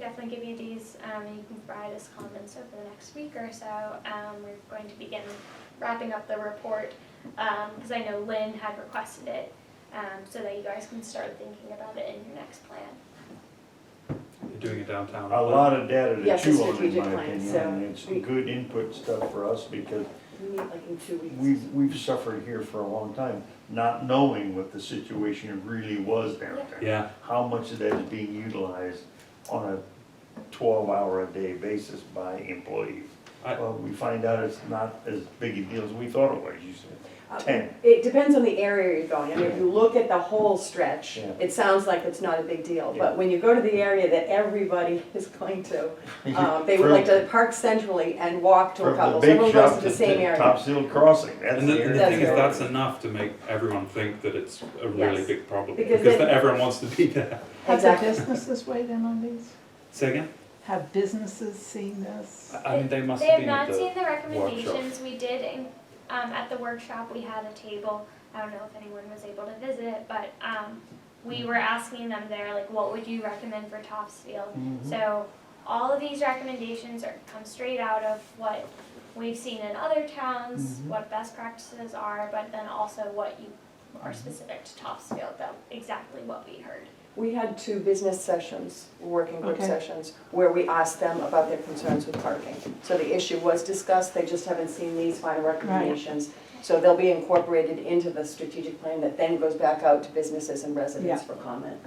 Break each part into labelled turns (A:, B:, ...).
A: definitely give you these, um, and you can provide us comments over the next week or so. Um, we're going to begin wrapping up the report, um, because I know Lynn had requested it, um, so that you guys can start thinking about it in your next plan.
B: You're doing it downtown.
C: A lot of data to
D: Yes,
C: chew
D: the
C: on, in
D: strategic
C: my
D: plan,
C: opinion,
D: so
C: and it's
D: we-
C: good input stuff for us, because
D: We meet like in two weeks.
C: we've, we've suffered here for a long time, not knowing what the situation really was downtown.
B: Yeah,
C: How much of that is being utilized on a twelve-hour-a-day basis by employees?
B: I-
C: Well, we find out it's not as big a deal as we thought it was, you said.
D: Uh,
C: ten.
D: It depends on the area you're going. I mean, if you look at the whole stretch,
C: Yeah.
D: it sounds like it's not a big deal.
C: Yeah.
D: But when you go to the area that everybody is going to, uh, they would like to park centrally and walk to a
C: From the
D: couple.
C: bake
D: Everyone goes
C: shop
D: to
C: to
D: the same
C: to
D: area.
C: Top Seal Crossing, that's
B: and
C: the
B: the, and
C: area.
B: the thing is,
D: That's
B: that's enough to make everyone think that it's a really
D: Yes.
B: big problem,
D: Because
B: because
D: then-
B: the- everyone wants to be there.
E: Have the
D: Exactly.
E: business this way then on these?
B: Say again?
E: Have businesses seen this?
B: I- I mean, they must
A: They
B: have
A: have
B: been at
A: not
B: the,
A: seen the recommendations, we did, in- um, at the workshop, we had a table, I don't know if anyone was able to visit, but, um, we were asking them there, like, what would you recommend for Topsfield?
C: Mhm.
A: So all of these recommendations are, come straight out of what we've seen in other towns,
C: Mhm.
A: what best practices are, but then also what you are specific to Topsfield, though, exactly what we heard.
D: We had two business sessions, working group
E: Okay.
D: sessions, where we asked them about their concerns with parking. So the issue was discussed, they just haven't seen these final recommendations. So they'll be incorporated into the strategic plan that then goes back out to businesses and residents for comment.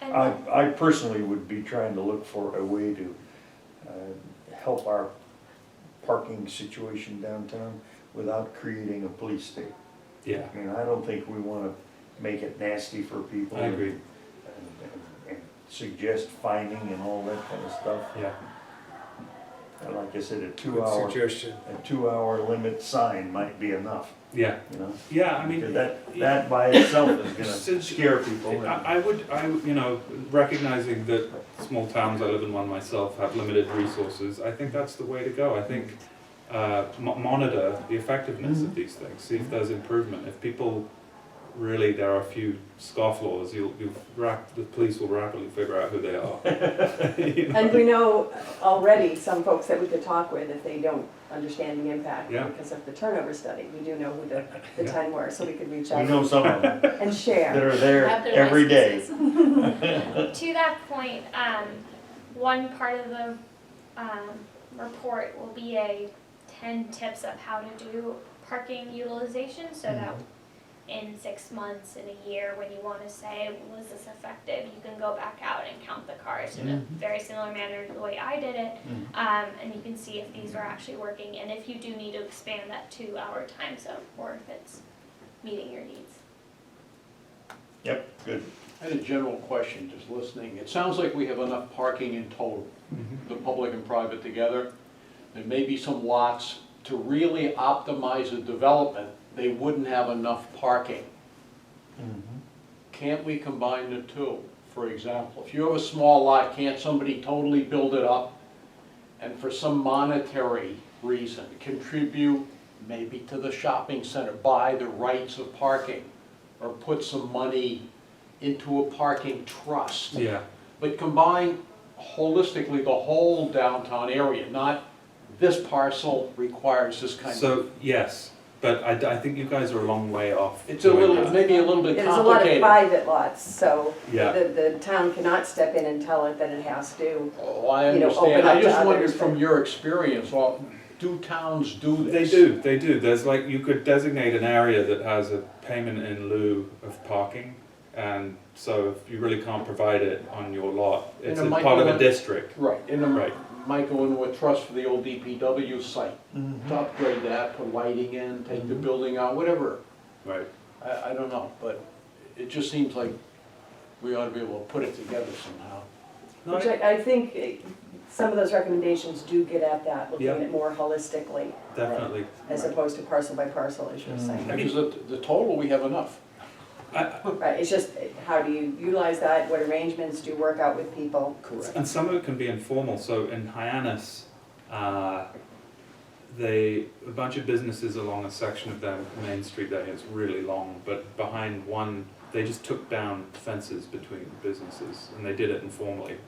A: And
C: I, I personally would be trying to look for a way to uh, help our parking situation downtown without creating a police state.
B: yeah,
C: I mean, I don't think we want to make it nasty for people.
B: I agree,
C: and- and- and Suggest fining and all that kind of stuff.
B: yeah.
C: And like I said, a
F: Good
C: two-hour,
F: suggestion.
C: a two-hour limit sign might be enough,
B: Yeah,
C: you know?
B: yeah, I mean,
C: Because that, that by itself is gonna
B: Since-
C: scare people. and-
B: I, I would, I, would- you know, recognizing that small towns, I live in one myself, have limited resources, I think that's the way to go. I think, uh, mo- monitor the effectiveness
G: Mm-hmm.
B: of these things, see if there's improvement. If people, really, there are a few scofflaws, you'll, you'll, rap- the police will rapidly figure out who they are. You know?
D: And we know already some folks that we could talk with if they don't understand the impact
B: Yeah.
D: because of the turnover study. We do know who the, the
B: Yeah.
D: ten were, so we could reach
C: We
D: out
C: know some of them
D: and
C: that
D: share.
C: are there every day.
A: to that point, um, one part of the, um, report will be a ten tips of how to do parking utilization, so that in six months, in a year, when you wanna say, was this effective, you can go back out and count the cars in a very similar manner to the way I did it.
C: Mhm.
A: Um, and you can see if these are actually working, and if you do need to expand that two-hour time zone, or if it's meeting your needs.
C: Yep, good.
G: I had a general question, just listening. It sounds like we have enough parking in total,
C: Mm-hmm.
G: the public and private together. There may be some lots, to really optimize the development, they wouldn't have enough parking.
C: Mm-hmm.
G: Can't we combine the two? For example, if you have a small lot, can't somebody totally build it up and for some monetary reason contribute maybe to the shopping center, buy the rights of parking? Or put some money into a parking trust?
B: Yeah,
G: but combine holistically the whole downtown area, not this parcel requires this kind of.
B: so, yes, but I, I think you guys are a long way off.
G: It's a
B: doing
G: little,
B: that.
G: maybe a little bit
D: There's a lot of
G: complicated.
D: private lots, so
B: Yeah.
D: the, the town cannot step in and tell it that it has to.
G: Oh, I
D: you know, open
G: understand.
D: up
G: I
D: to
G: just wondered
D: others,
G: from
D: but-
G: your experience, well, do towns do
B: They
G: this?
B: do, they do. There's like, you could designate an area that has a payment in lieu of parking. And so if you really can't provide it on your lot, it's
G: And
B: a
G: it might
B: part of a
G: not-
B: district.
G: Right, and then
B: Right.
G: might go into a trust for the old DPW site,
B: Mm-hmm.
C: Mhm.
G: to upgrade that, put lighting in, take the building out, whatever.
B: Right.
G: I, I don't know, but it just seems like we ought to be able to put it together somehow.
B: No,
D: Which I, I think eh, some of those recommendations do get at that, looking
B: Yeah.
D: at it more holistically,
B: definitely.
D: as opposed to parcel by parcel, as
G: Mm.
D: you're saying.
G: Because the, the total, we have enough.
D: Right, it's just, eh, how do you utilize that, what arrangements do you work out with people?
G: Correct.
B: And some of it can be informal. So in Hyannis, uh, they a bunch of businesses along a section of their main street that is really long, but behind one, they just took down fences between businesses, and they did it informally.